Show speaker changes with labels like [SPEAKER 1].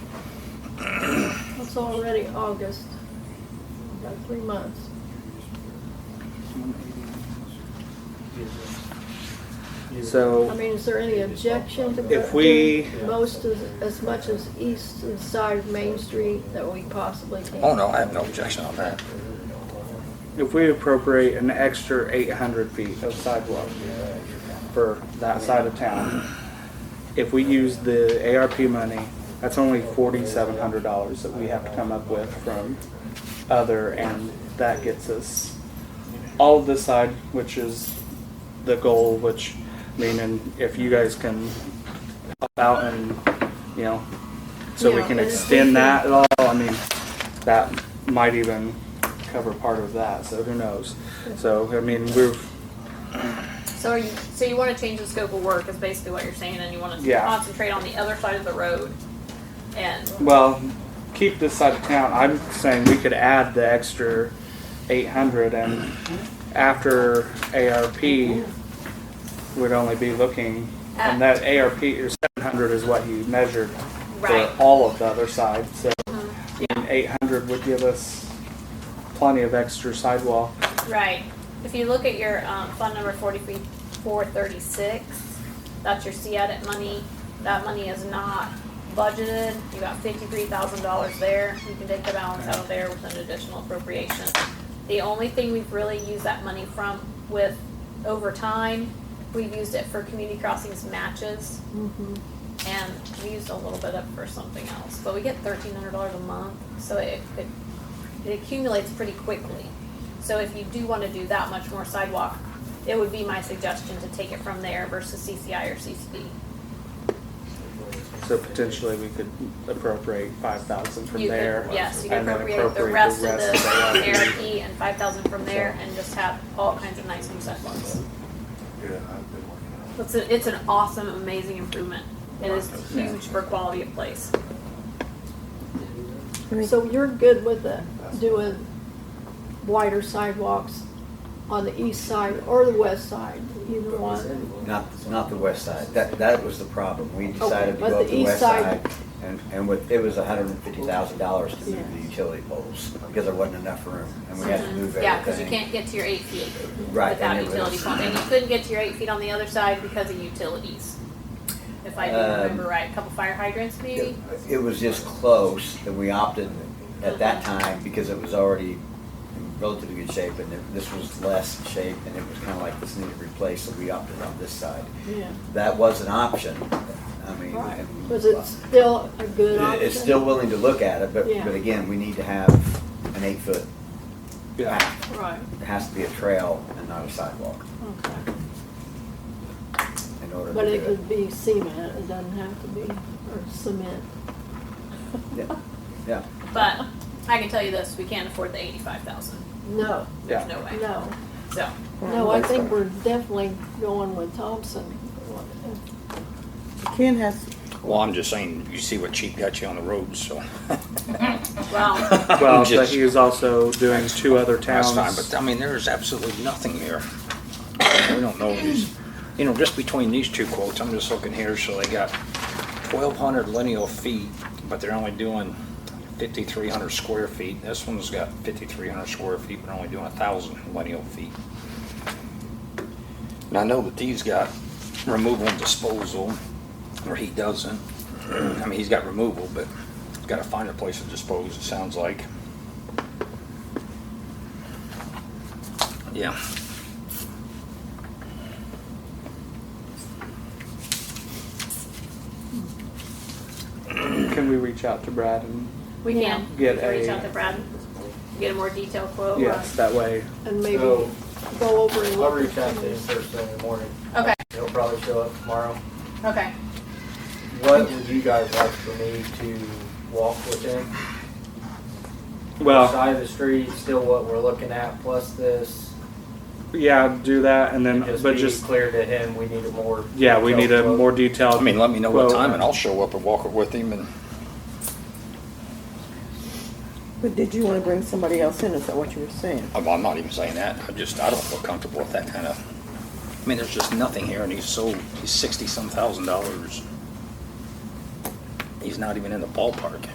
[SPEAKER 1] It's already August, about three months. I
[SPEAKER 2] So,
[SPEAKER 1] mean, is there any objection to
[SPEAKER 2] If we-
[SPEAKER 1] doing most as, as much as east and side of Main Street that we possibly can?
[SPEAKER 3] Oh, no, I have no objection on that.
[SPEAKER 2] if we appropriate an extra 800 feet of sidewalk for that side of town, if we use the ARP money, that's only $4,700 that we have to come up with from other, and that gets us all of this side, which is the goal, which, meaning if you guys can help out and, you know, so we
[SPEAKER 1] Yeah, and if we
[SPEAKER 2] can
[SPEAKER 1] can-
[SPEAKER 2] extend that at all, I mean, that might even cover part of that, so who knows? So, I mean, we're,
[SPEAKER 4] So are you, so you want to change the scope of work is basically what you're saying, and you want to
[SPEAKER 2] Yeah.
[SPEAKER 4] concentrate on the other side of the road, and
[SPEAKER 2] well, keep this side of town, I'm saying we could add the extra eight hundred and after ARP, we'd only be looking, and
[SPEAKER 4] Uh.
[SPEAKER 2] that ARP, or seven hundred is what you measured
[SPEAKER 4] Right. Uh-huh.
[SPEAKER 2] for all of the other side, so eight hundred would give us plenty of extra sidewalk.
[SPEAKER 4] right. If you look at your um, fund number forty four thirty six, that's your C edit money. That money is not budgeted. You got fifty three thousand dollars there. You can take the balance out of there with an additional appropriation. The only thing we've really used that money from with over time, we've used it for community crossings matches.
[SPEAKER 1] Mhm.
[SPEAKER 4] and we used a little bit up for something else. But we get thirteen hundred dollars a month, so it, it it accumulates pretty quickly. So if you do want to do that much more sidewalk, it would be my suggestion to take it from there versus CCI or CCD.
[SPEAKER 2] So potentially we could appropriate five thousand from
[SPEAKER 4] You could-
[SPEAKER 2] there.
[SPEAKER 4] Yes, you can
[SPEAKER 2] and then
[SPEAKER 4] appropriate the rest of the ARP and five thousand from there and just have all kinds of nice new sidewalks. It's, a- it's an awesome, amazing improvement. It is huge for quality of place.
[SPEAKER 1] So you're good with the, doing wider sidewalks on the east side or the west side, either one?
[SPEAKER 5] Not, not the west side. That, that was the problem. We decided to
[SPEAKER 1] but
[SPEAKER 5] go
[SPEAKER 1] the
[SPEAKER 5] up the
[SPEAKER 1] east
[SPEAKER 5] west
[SPEAKER 1] side-
[SPEAKER 5] side. And, and with, it was hundred and fifty thousand dollars to move
[SPEAKER 1] Yeah.
[SPEAKER 5] the utility poles because there wasn't enough room and we had to move everything.
[SPEAKER 4] Yeah, because you can't get to your eight feet
[SPEAKER 5] Right,
[SPEAKER 4] without
[SPEAKER 5] and it
[SPEAKER 4] utility
[SPEAKER 5] was-
[SPEAKER 4] pole, and you couldn't get to your eight feet on the other side because of utilities. If I do
[SPEAKER 5] Um,
[SPEAKER 4] remember right, a couple fire hydrants maybe?
[SPEAKER 5] It was just close and we opted at that
[SPEAKER 1] Uh-huh.
[SPEAKER 5] time because it was already in relatively good shape and it- this was less shape and it was kind of like this needed replaced, so we opted on this side.
[SPEAKER 1] Yeah.
[SPEAKER 5] That was an option. I mean.
[SPEAKER 1] Right.
[SPEAKER 5] and-
[SPEAKER 1] Was it still a good option?
[SPEAKER 5] It's still willing to look at it, but,
[SPEAKER 1] Yeah.
[SPEAKER 5] but again, we need to have an eight-foot
[SPEAKER 2] Yeah,
[SPEAKER 5] path.
[SPEAKER 1] Right,
[SPEAKER 5] It has to be a trail and not a sidewalk
[SPEAKER 1] okay.
[SPEAKER 5] in order
[SPEAKER 1] But
[SPEAKER 5] to
[SPEAKER 1] it
[SPEAKER 5] do it.
[SPEAKER 1] could be cement, it doesn't have to be, or cement.
[SPEAKER 5] Yeah, yeah.
[SPEAKER 4] But I can tell you this, we can't afford the eighty-five thousand,
[SPEAKER 1] No,
[SPEAKER 2] yeah.
[SPEAKER 4] there's no way,
[SPEAKER 1] no.
[SPEAKER 4] so.
[SPEAKER 1] No, I think we're definitely going with Thompson.
[SPEAKER 6] Ken has,
[SPEAKER 3] Well, I'm just saying, you see what cheap got you on the roads, so.
[SPEAKER 4] Well,
[SPEAKER 2] Well, but
[SPEAKER 3] Just-
[SPEAKER 2] he was also doing two other
[SPEAKER 3] That's
[SPEAKER 2] towns.
[SPEAKER 3] fine, but I mean, there is absolutely nothing here. We don't know these, you know, just between these two quotes, I'm just looking here, so they got twelve hundred lineal feet, but they're only doing fifty-three hundred square feet. This one's got fifty-three hundred square feet, but only doing a thousand lineal feet. And I know that he's got removal and disposal, or he doesn't. I mean, he's got removal, but he's gotta find a place to dispose, it sounds like. Yeah.
[SPEAKER 2] Can we reach out to Brad and,
[SPEAKER 4] we can, we
[SPEAKER 2] Get
[SPEAKER 4] can reach
[SPEAKER 2] a-
[SPEAKER 4] out to Brad, get a more detailed
[SPEAKER 7] Oh,
[SPEAKER 4] quote.
[SPEAKER 2] yes, that way,
[SPEAKER 1] And maybe
[SPEAKER 7] So-
[SPEAKER 1] go over and
[SPEAKER 7] I'll
[SPEAKER 1] look.
[SPEAKER 7] reach out to him first thing in the morning.
[SPEAKER 4] Okay,
[SPEAKER 7] He'll probably show up tomorrow.
[SPEAKER 4] okay,
[SPEAKER 7] What would you guys like for me to walk with him?
[SPEAKER 2] well,
[SPEAKER 7] Side of the street, still what we're looking at, plus this.
[SPEAKER 2] yeah, do that and then,
[SPEAKER 7] Just
[SPEAKER 2] but
[SPEAKER 7] be
[SPEAKER 2] just,
[SPEAKER 7] clear to him, we need a more.
[SPEAKER 2] yeah, we need a
[SPEAKER 7] detailed
[SPEAKER 2] more
[SPEAKER 7] quote.
[SPEAKER 2] detailed.
[SPEAKER 3] I mean, let me know what
[SPEAKER 2] quote.
[SPEAKER 3] time and I'll show up and walk it with him and,
[SPEAKER 6] but did you want to bring somebody else in? Is that what you were saying?
[SPEAKER 3] I'm I'm not even saying that. I just, I don't feel comfortable with that kind of, I mean, there's just nothing here and he's so, he's sixty some thousand dollars. He's not even in the ballpark.